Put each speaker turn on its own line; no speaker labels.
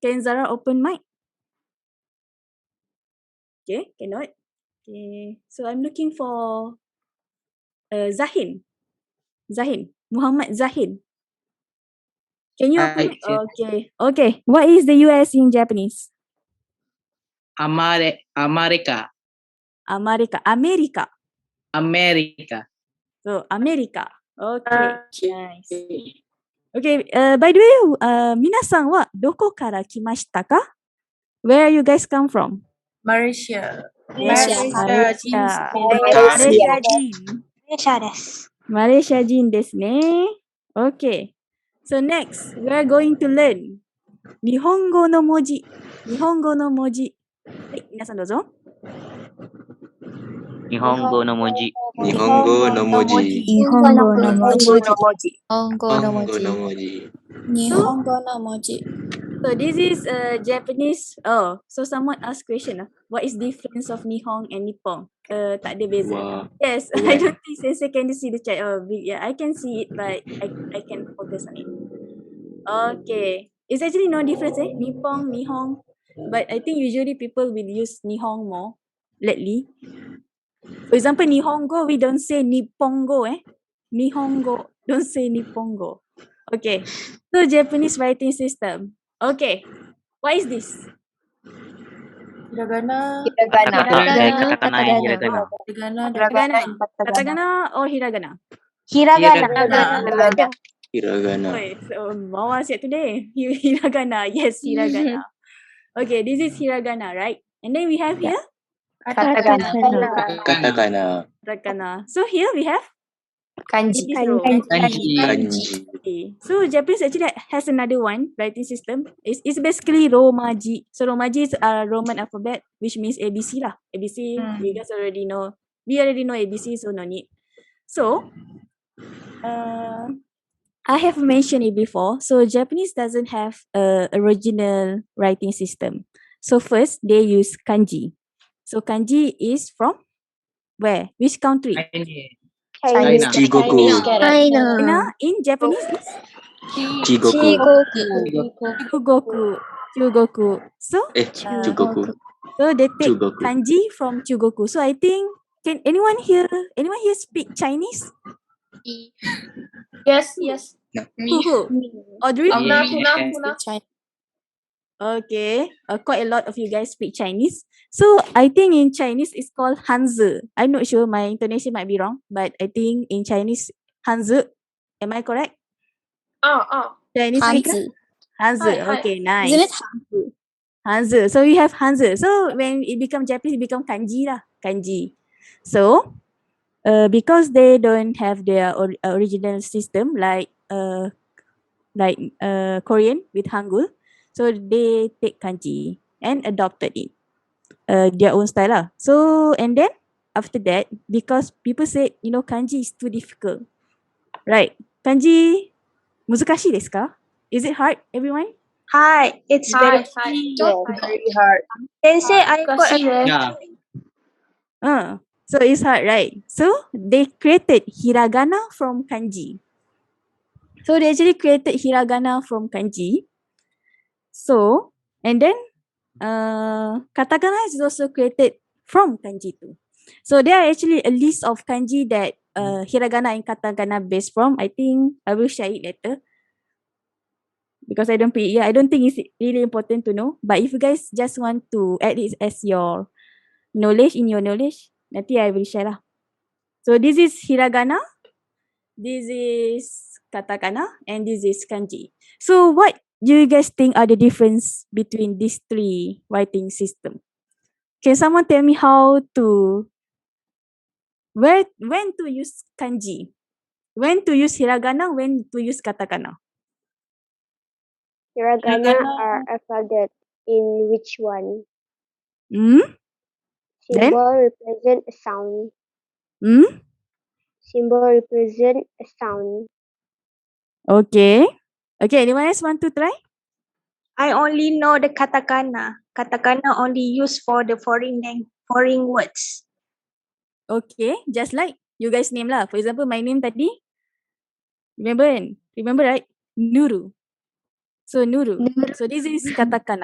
Can Zara open mic? Okay, cannot. Okay, so I'm looking for uh, Zahin. Zahin. Muhammad Zahin. Can you open
Hi,
mic?
teacher.
Okay. Okay. What is the US in Japanese?
Amare, America,
America. America.
America.
So America. Okay. Nice. Okay. Uh, by the way, uh, 皆さんはどこから来ましたか Where you guys come from?
Malaysia.
Malaysia.
Malaysia.
Malaysia.
人。
弊社です。
マレーシア人ですね。Okay. So next, we are going to learn 日本語の文字。日本語の文字。はい、皆さんどうぞ。
日本語の文字。
日本語の文字。
日
本語の文字
本
日
語の文
本語
字。
の文字。
日本語の文字。
So this is a Japanese. Oh, so someone asked question. ah. What is difference of Nihon and Nippon? Uh, tak ada beza.
Wah,
Yes, I
Right.
don't think Sensei can see the chat. Oh, we- yeah, I can see it, but I, I can focus on it. Okay, it's actually no difference, eh? Nippon, Nihong, but I think usually people will use Nihong more lately. For example, Nihongo, we don't say Nippongo, eh? Nihongo, don't say Nippongo. Okay, so Japanese writing system. Okay, what is this?
Hiragana.
Katakana.
Katakana.
Katakana and hiragana.
Hiragana.
Hiragana.
Katakana.
Katagana or hiragana?
Hiragana. Hiragana.
hiragana.
Wait, so Mawar said today, Hi- hiragana. Yes, hiragana. okay, this is hiragana, right? And then we have here
Katakana.
katakana. So here we have
Kanji.
this row.
Kanji.
Kanji.
Okay. So Japanese actually has another one writing system. It's, it's basically Romaji. So Romaji is a Roman alphabet, which means ABC lah. ABC, you guys already know. We already know ABC, so no need. So, uh, I have mentioned it before. So Japanese doesn't have a original writing system. So first they use kanji. So kanji is from where? Which country?
Chinese.
Chinese.
China.
Chigoku.
Uh,
China in Japanese is
Chigoku.
Chugoku. Chugoku. So
Eh,
Ah.
Chugoku.
So they take
Chugoku.
kanji from Chugoku. So I think can anyone here anyone here speak Chinese?
Yes, yes.
Who who? Audrey?
Um,
Yeah.
Okay. Uh, quite a lot of you guys speak Chinese. So I think in Chinese it's called Hanzi. I'm not sure my intonation might be wrong, but I think in Chinese Hanzi. Am I correct?
Oh, oh.
Chinese speaker? Hanzi.
Hi, hi.
Okay, nice. Hanzi. So you have Hanzi. So when it become Japanese, it become kanji lah. Kanji. So uh, because they don't have their or- original system like uh, like uh, Korean with Hangul, so they take kanji and adopted it, uh, their own style lah. So and then after that, because people said you know kanji is too difficult, right? Kanji 難しいですか Is it hard, everyone?
Hi, it's very hard. Sensei, I got a
Yeah.
Uh, so it's hard, right? So they created hiragana from kanji. So they actually created hiragana from kanji. So and then uh, katakana is also created from kanji too. So there are actually a list of kanji that uh, hiragana and katakana based from. I think I will share it later because I don't pre- yeah I don't think it's really important to know. But if you guys just want to add it as your knowledge in your knowledge. Nanti I will share lah. So this is hiragana, this is katakana, and this is kanji. So what do you guys think are the difference between these three writing system? Can someone tell me how to where when to use kanji? When to use hiragana, when to use katakana?
Hiragana are alphabet in which one?
Hmm? Then?
Symbol represent a sound.
Hmm?
Symbol represent a sound.
Okay. Okay, anyone else want to try?
I only know the katakana. Katakana only used for the foreign lang- foreign words.
Okay, just like you guys name lah. For example, my name tadi, remember kan? Remember right? Nuru. So Nuru.
Nuru.
So this is katakana.